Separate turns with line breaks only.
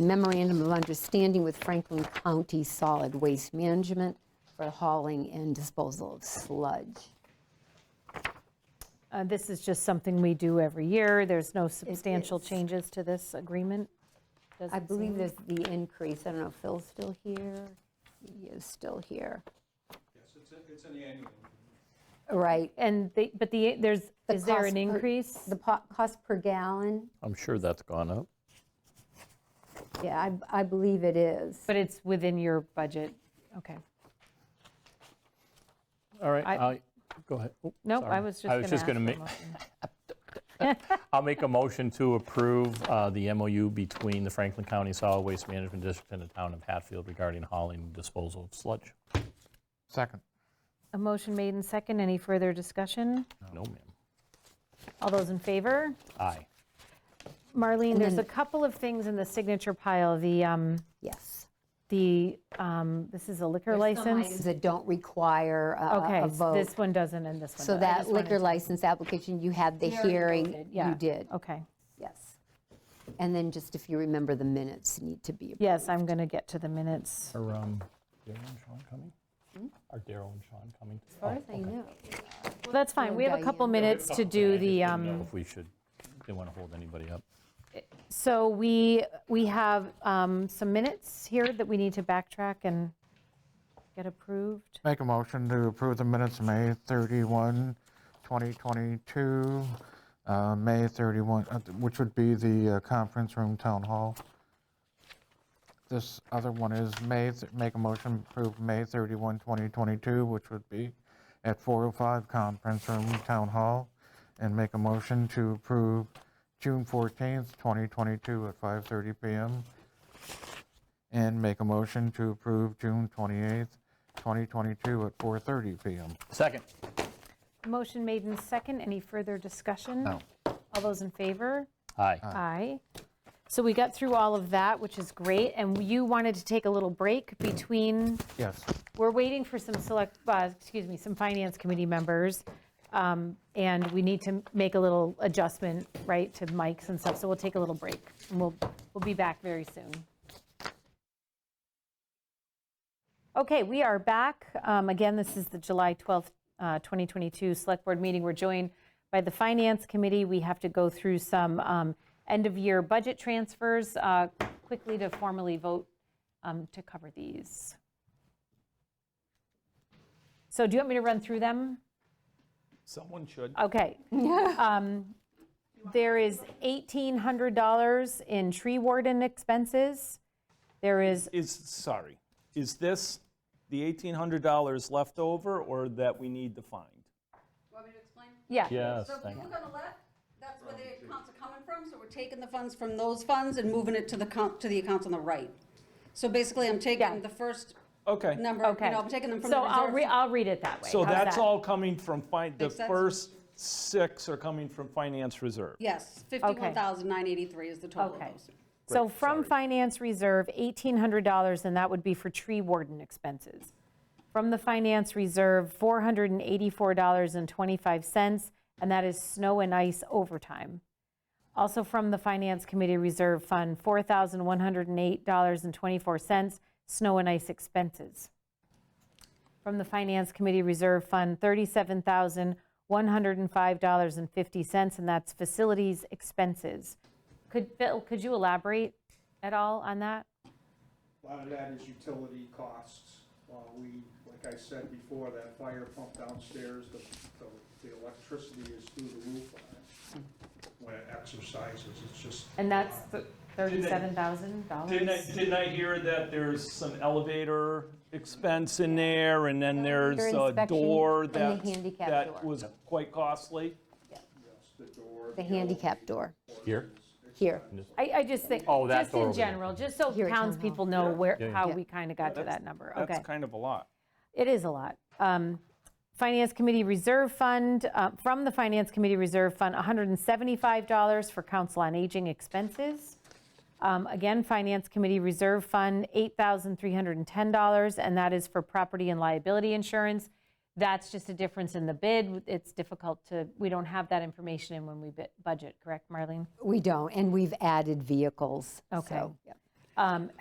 the memorandum of understanding with Franklin County Solid Waste Management for hauling and disposal of sludge.
Uh, This is just something we do every year. There's no substantial
is.
changes to this agreement?
I
doesn't
believe
seem.
there's the increase, I don't know, if Phil's still here? He is still here,
Yes, it's, a- it's an annual.
right?
And, they- but the, there's,
The
is there
cost
an
per-
increase?
The po- cost per gallon,
I'm sure that's gone up.
yeah, I I believe it is.
But it's within your budget? Okay.
All right,
I-
I, go ahead. Oh,
Nope, I
sorry.
was just
I
going to
was just going to make,
ask.
I'll make a motion to approve uh, the MOU between the Franklin County Solid Waste Management District and the town of Hatfield regarding hauling and disposal of sludge.
Second.
A motion made in second. Any further discussion?
No, ma'am.
All those in favor?
Aye.
Marlene,
And
there's a
then-
couple of things in the signature pile. The, um,
Yes.
the, um, this is a liquor
There's some
license?
items uh, That don't require a-
Okay,
a- a
s- this
vote.
one doesn't and this one does.
So
I
that
just wanted
liquor
to-
license application, you had the hearing.
Yeah.
You did,
Okay.
yes. And then just if you remember, the minutes need to be.
Yes, I'm going to get to the minutes.
Are um, Daryl and Sean coming?
Hmm?
Are Daryl and Sean coming? As
As far as I know.
Well, that's fine.
Or
We have a
Diane.
couple minutes to do the, um,
If we should, didn't want to hold anybody up.
so we, we have um, some minutes here that we need to backtrack and get approved.
Make a motion to approve the minutes, May 31, 2022, uh, May 31, uh, which would be the uh, conference room town hall. This other one is May, th- make a motion to approve May 31, 2022, which would be at 405 conference room town hall. And make a motion to approve June 14th, 2022 at 5:30 PM and make a motion to approve June 28th, 2022 at 4:30 PM.
Second.
Motion made in second. Any further discussion?
No.
All those in favor?
Aye.
Aye. So we got through all of that, which is great. And you wanted to take a little break between
Yes.
We're waiting for some select, uh, excuse me, some finance committee members, um, and we need to make a little adjustment, right, to mics and stuff, so we'll take a little break, and we'll, we'll be back very soon. Okay, we are back. Um, Again, this is the July 12th, uh, 2022 Select Board meeting. We're joined by the Finance Committee. We have to go through some um, end-of-year budget transfers uh, quickly to formally vote um, to cover these. So do you want me to run through them?
Someone should.
Okay. Um, There is $1,800 in tree warden expenses. There is,
Is, sorry, is this the $1,800 left over or that we need to find?
Want me to explain?
yeah,
Yes,
So if
thank
you
you.
look on the left, that's where the accounts are coming from, so we're taking the funds from those funds and moving it to the account, to the accounts on the right. So basically, I'm
Yeah.
taking the first
Okay,
number,
okay.
you know, I'm taking them from the
So I'll, re-
reserves.
I'll read it that way.
so
How's
that's
that?
all coming from fin, the
Makes sense?
first six are coming from finance reserve.
Yes, 51,983 is the total of
Okay.
those.
So from finance reserve, $1,800, and that would be for tree warden expenses. From the finance reserve, $484.25, and that is snow and ice overtime. Also from the Finance Committee Reserve Fund, $4,108.24, snow and ice expenses. From the Finance Committee Reserve Fund, $37,105.50, and that's facilities expenses. Could, Bill, could you elaborate at all on that?
A lot of Uh, that is utility costs. Uh, We, like I said before, that fire pump downstairs, the, the- the electricity is through the roof on it when it exercises, it's just.
And that's
Didn't I,
$37,000?
didn't I hear that there's some elevator expense in there, and then there's
Elevator
a
inspection
door
and the
that,
handicap door.
that was quite costly?
Yes, the door.
The handicap door,
Here?
here.
I, I just think,
Oh, that
just
door
in
over there.
general, just so
Here at town hall.
townspeople know where,
Yeah, yeah.
how
Yeah.
we kind of got to that number. Okay,
That's kind of a lot.
it is a lot. Um, Finance Committee Reserve Fund, uh, from the Finance Committee Reserve Fund, $175 for Council on Aging expenses. Um, Again, Finance Committee Reserve Fund, $8,310, and that is for property and liability insurance. That's just a difference in the bid. It's difficult to, we don't have that information in when we bid- budget, correct, Marlene?
We don't, and we've added vehicles.
Okay.
so, yeah.
Um, Um,